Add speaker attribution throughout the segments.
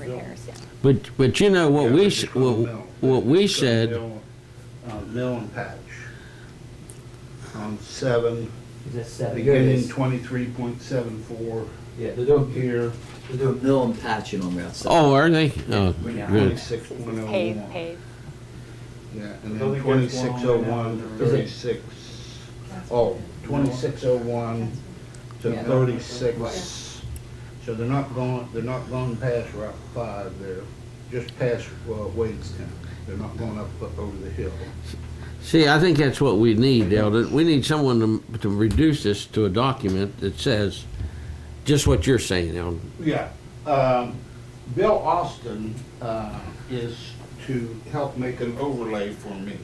Speaker 1: owners, yeah.
Speaker 2: But, but you know, what we, s-
Speaker 3: Yeah,
Speaker 2: what
Speaker 3: they call mill.
Speaker 2: what we
Speaker 3: It's a
Speaker 2: said,
Speaker 3: mill, uh, Mill and patch. On seven,
Speaker 4: Is that seven? Here it
Speaker 3: beginning
Speaker 4: is.
Speaker 3: twenty-three point seven four
Speaker 4: Yeah, they're doing,
Speaker 3: here,
Speaker 4: they're doing mill and patching on Route seven.
Speaker 2: oh, are they? Oh,
Speaker 4: Yeah.
Speaker 2: good.
Speaker 3: twenty-six point oh
Speaker 1: Paved,
Speaker 3: one.
Speaker 1: paved.
Speaker 3: Yeah, and
Speaker 5: Well,
Speaker 3: then
Speaker 5: they get one
Speaker 3: twenty-six oh
Speaker 5: on
Speaker 3: one
Speaker 5: there.
Speaker 3: to thirty-six, oh, twenty-six oh one to
Speaker 4: Yeah.
Speaker 3: thirty-six. So they're not going, they're not going past Route five, they're just past, uh, Wadestown. They're not going up, up over the hill.
Speaker 2: See, I think that's what we need, Eldon. We need someone to, to reduce this to a document that says just what you're saying, Eldon.
Speaker 3: Yeah, um, Bill Austin, uh, is to help make an overlay for me,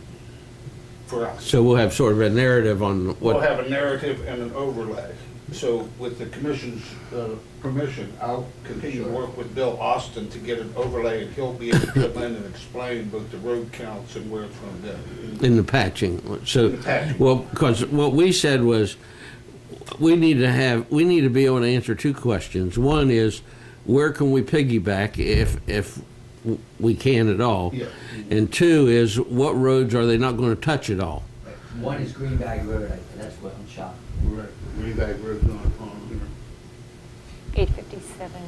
Speaker 3: for us.
Speaker 2: So we'll have sort of a narrative on
Speaker 3: We'll
Speaker 2: what,
Speaker 3: have a narrative and an overlay. So with the commission's, uh, permission, I'll continue to work with Bill Austin to get an overlay and he'll be able to come in and explain both the road counts and where it's gonna go.
Speaker 2: in the patching. So,
Speaker 3: The patching.
Speaker 2: well, because what we said was, we need to have, we need to be able to answer two questions. One is, where can we piggyback if, if w- we can at all?
Speaker 3: Yeah.
Speaker 2: And two is, what roads are they not gonna touch at all?
Speaker 4: One is Green Bag Road, I- that's what I'm shocked.
Speaker 3: Right, Green Bay Road on, on here.
Speaker 1: Eight fifty-seven,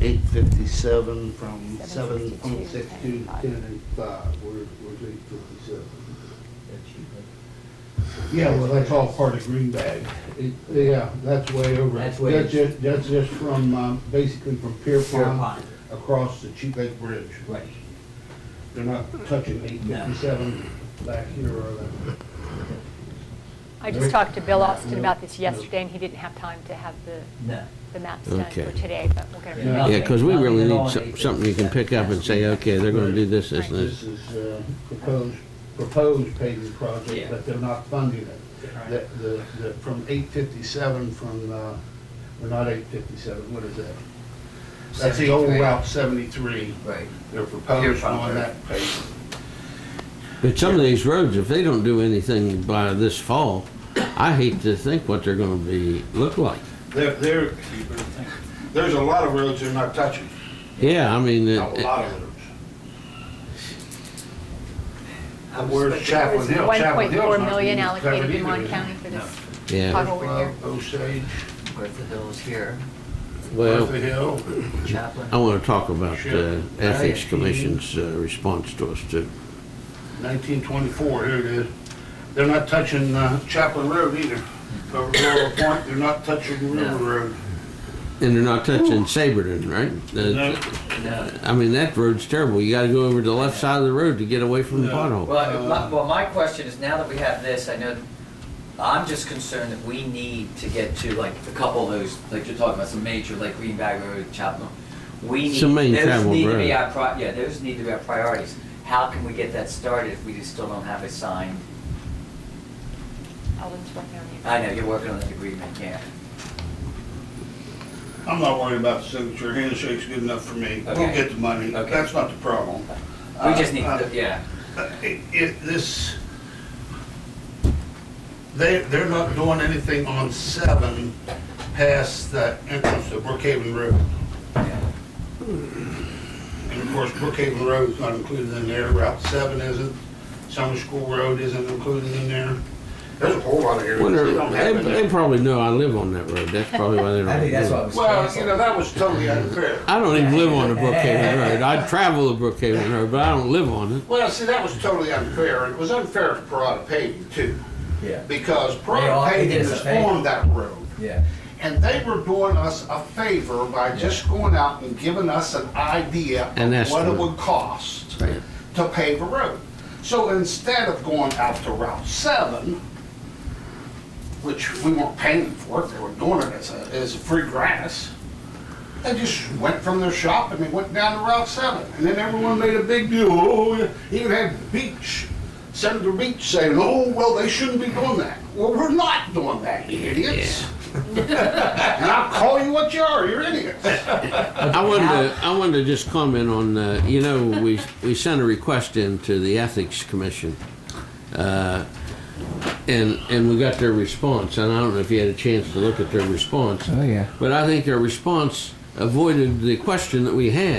Speaker 3: eight fifty-seven from seven
Speaker 1: 7:62
Speaker 3: point six to
Speaker 1: and five.
Speaker 3: ten and five, we're, we're eight fifty-seven.
Speaker 4: They're cheap, but
Speaker 3: Yeah, well, that's all part of Green Bag. It- Yeah, that's way over.
Speaker 4: That's way-
Speaker 3: just, that's just from, um, basically from Pierpont
Speaker 4: Pierpont.
Speaker 3: across the Cheap Lake Bridge.
Speaker 4: Right.
Speaker 3: They're not touching eight fifty-seven back here or that.
Speaker 1: I just talked to Bill
Speaker 4: No,
Speaker 1: Austin
Speaker 3: no,
Speaker 1: about this
Speaker 3: no.
Speaker 1: yesterday, and he didn't have time to have the,
Speaker 4: No.
Speaker 1: the maps done
Speaker 2: Okay.
Speaker 1: for today, but we'll get
Speaker 3: Yeah.
Speaker 1: them.
Speaker 2: Yeah, because we
Speaker 4: Nothing
Speaker 2: really
Speaker 4: at
Speaker 2: need
Speaker 4: all,
Speaker 2: some-
Speaker 4: Nathan.
Speaker 2: something you can pick up and say, okay, they're gonna do this, this, and this.
Speaker 3: This is, uh, proposed, proposed paving
Speaker 4: Yeah.
Speaker 3: project, but they're not funding it.
Speaker 4: Right.
Speaker 3: The, the, the, from eight fifty-seven from, uh, well, not eight fifty-seven, what is that? That's the old
Speaker 4: 73.
Speaker 3: Route seventy-three.
Speaker 4: Right.
Speaker 3: They're proposed
Speaker 4: Pierpont
Speaker 3: on
Speaker 4: Road.
Speaker 3: that pavement.
Speaker 2: But some of these roads, if they don't do anything by this fall, I hate to think what they're gonna be, look like.
Speaker 3: There, there, there's a lot of roads they're not touching,
Speaker 2: Yeah, I mean,
Speaker 3: a
Speaker 2: it-
Speaker 3: lot of roads.
Speaker 4: I was
Speaker 3: Where's
Speaker 4: expecting-
Speaker 3: Chaplain Hill?
Speaker 1: One
Speaker 3: Chaplain
Speaker 1: point
Speaker 3: Hill's
Speaker 1: four
Speaker 3: not
Speaker 1: million
Speaker 3: being covered
Speaker 1: allocated in
Speaker 3: either,
Speaker 1: Mon
Speaker 3: is it?
Speaker 1: County for this
Speaker 2: yeah,
Speaker 1: Chicago repair.
Speaker 3: Well, Osage,
Speaker 4: Bertha Hill's here,
Speaker 2: well,
Speaker 3: Bertha Hill,
Speaker 4: Chaplain.
Speaker 2: I wanna talk about the
Speaker 3: Sure.
Speaker 2: Ethics Commission's uh, response to us too.
Speaker 3: nineteen twenty-four, here it is. They're not touching uh, Chaplain Road either. Over Laurel Point, they're not touching
Speaker 4: No.
Speaker 3: River Road.
Speaker 2: And they're not touching Saberton, right?
Speaker 4: Uh,
Speaker 3: No.
Speaker 2: The-
Speaker 4: No.
Speaker 2: I mean, that road's terrible. You gotta go over to the left side of the road to get away from the
Speaker 3: No.
Speaker 2: pothole.
Speaker 4: Well, my- well, my question is, now that we have this, I know, I'm just concerned that we need to get to like a couple of those, like you're talking about, some major, like Green Bag Road, Chapel. We need,
Speaker 2: Some main
Speaker 4: those
Speaker 2: travel
Speaker 4: need to
Speaker 2: road.
Speaker 4: be our, pri- yeah, those need to be our priorities. How can we get that started if we just still don't have a sign?
Speaker 1: Elden's working on it.
Speaker 4: I know, you're working on that agreement, yeah.
Speaker 3: I'm not worried about the signature, handshake's good enough for me. We'll
Speaker 4: Okay.
Speaker 3: get the money,
Speaker 4: Okay.
Speaker 3: that's not the problem.
Speaker 4: We just need,
Speaker 3: Uh, uh,
Speaker 4: to yeah.
Speaker 3: It, it, this, they, they're not doing anything on seven past the entrance to Brookhaven Road.
Speaker 4: yeah.
Speaker 3: And of course, Brookhaven Road's not included in there, Route seven isn't, Summer School Road isn't included in there. There's a whole lot of areas
Speaker 2: Wonder,
Speaker 3: they don't have
Speaker 2: they,
Speaker 3: in
Speaker 2: they
Speaker 3: there.
Speaker 2: probably know I live on that road. That's probably why they
Speaker 4: I
Speaker 2: don't
Speaker 4: think that's
Speaker 2: do
Speaker 4: why it
Speaker 2: it.
Speaker 4: was
Speaker 3: Well, you know,
Speaker 4: canceled.
Speaker 3: that was totally unfair.
Speaker 2: I don't even live on the Brookhaven Road. I travel the Brookhaven Road, but I don't live on it.
Speaker 3: Well, see, that was totally unfair, and it was unfair to Parada paving too,
Speaker 4: Yeah,
Speaker 3: because
Speaker 4: They all-
Speaker 3: Parada
Speaker 4: they
Speaker 3: paving
Speaker 4: did the
Speaker 3: is
Speaker 4: same.
Speaker 3: on that road.
Speaker 4: yeah.
Speaker 3: And they were doing us a favor by just going out and giving us an idea
Speaker 2: An
Speaker 3: of what it
Speaker 2: estimate.
Speaker 3: would cost
Speaker 2: Right.
Speaker 3: to pave a road. So instead of going out to Route 7, which we weren't paying for it, they were doing it as a, as a free grass, they just went from their shop and they went down to Route 7. And then everyone made a big deal, oh, yeah. even had Beach, Senator Beach saying, oh, well, they shouldn't be doing that. Well, we're not doing that, you idiots. And I'll call you what you are, you're idiots.
Speaker 2: I wanted to, I wanted to just comment on, uh, you know, we, we sent a request in to the Ethics Commission. uh, And, and we got their response, and I don't know if you had a chance to look at their response.
Speaker 4: yeah.
Speaker 2: But I think their response avoided the question that we had.